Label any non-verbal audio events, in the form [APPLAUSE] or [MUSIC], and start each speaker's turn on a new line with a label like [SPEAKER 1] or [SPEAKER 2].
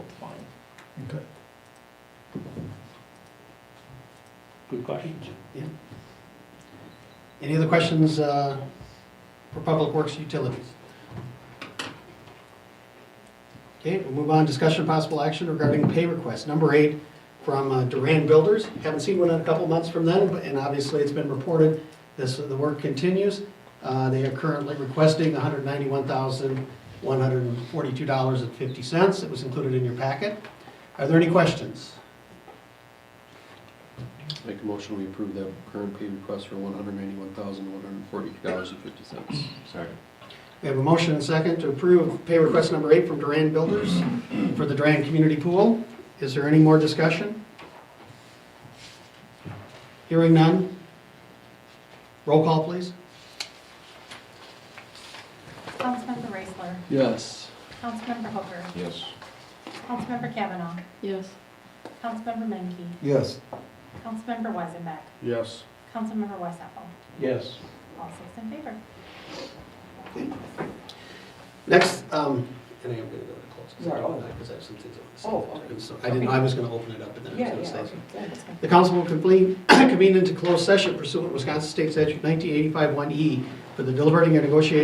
[SPEAKER 1] Okay.
[SPEAKER 2] Good questions.
[SPEAKER 3] Any other questions uh, for Public Works Utilities? Okay, we'll move on, discussion of possible action regarding pay request, number eight, from uh, Duran Builders. Haven't seen one in a couple months from them, but- and obviously it's been reported, this, the work continues. Uh, They are currently requesting $191,142.50. It was included in your packet. Are there any questions?
[SPEAKER 4] Make a motion, we approve that current pay request for one hundred ninety-one thousand, one hundred forty dollars and fifty cents.
[SPEAKER 1] Second.
[SPEAKER 3] We have a motion and second to approve pay request number eight from Duran Builders for the Duran Community Pool. Is there any more discussion? Hearing none? Roll call, please.
[SPEAKER 5] Councilmember Raisler,
[SPEAKER 4] Yes.
[SPEAKER 5] Councilmember Hooker,
[SPEAKER 1] Yes.
[SPEAKER 5] Councilmember Kavanaugh,
[SPEAKER 6] Yes.
[SPEAKER 5] Councilmember Menke,
[SPEAKER 1] Yes.
[SPEAKER 5] Councilmember Weisenbeck,
[SPEAKER 1] Yes.
[SPEAKER 5] Councilmember Westapple.
[SPEAKER 2] Yes.
[SPEAKER 5] All six in favor.
[SPEAKER 3] Next, um, and I am gonna go to close.
[SPEAKER 2] Is that all?
[SPEAKER 3] Because I have some things I
[SPEAKER 2] Oh,
[SPEAKER 3] want to
[SPEAKER 2] okay.
[SPEAKER 3] say. So I didn't, I was gonna open it up and then I
[SPEAKER 2] Yeah,
[SPEAKER 3] was
[SPEAKER 2] yeah,
[SPEAKER 3] gonna say.
[SPEAKER 2] okay, thanks.
[SPEAKER 3] The council will [CLEARS THROAT] convene, convene into closed session pursuant to Wisconsin State Statute 1985 1E E for the deliberating and negotiating